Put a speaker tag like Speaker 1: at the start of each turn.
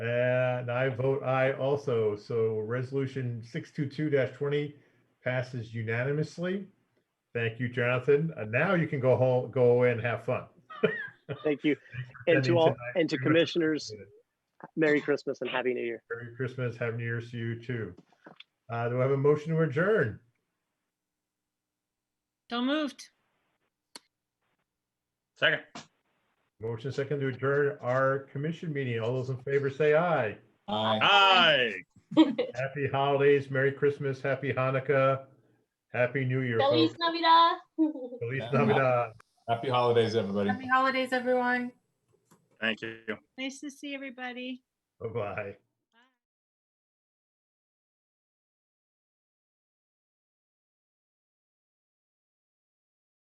Speaker 1: I vote aye also. So resolution six two two twenty passes unanimously. Thank you, Jonathan. And now you can go home, go away and have fun.
Speaker 2: Thank you. And to
Speaker 1: Ending
Speaker 2: all,
Speaker 1: tonight.
Speaker 2: and to
Speaker 1: Pretty much
Speaker 2: commissioners,
Speaker 1: appreciate
Speaker 2: Merry Christmas and Happy New Year.
Speaker 1: Merry Christmas, Happy New Year's to you too. Uh, do I have a motion to adjourn?
Speaker 3: So moved.
Speaker 4: Second.
Speaker 1: Motion second to adjourn our commission meeting. All those in favor say aye.
Speaker 5: Aye.
Speaker 4: Aye.
Speaker 1: Happy holidays, Merry Christmas, Happy Hanukkah, Happy New Year.
Speaker 6: Feliz
Speaker 1: folks.
Speaker 6: Navidad.
Speaker 1: Feliz Navidad.
Speaker 5: Happy holidays, everybody.
Speaker 7: Happy holidays, everyone.
Speaker 4: Thank you.
Speaker 3: Nice to see everybody.
Speaker 1: Bye-bye.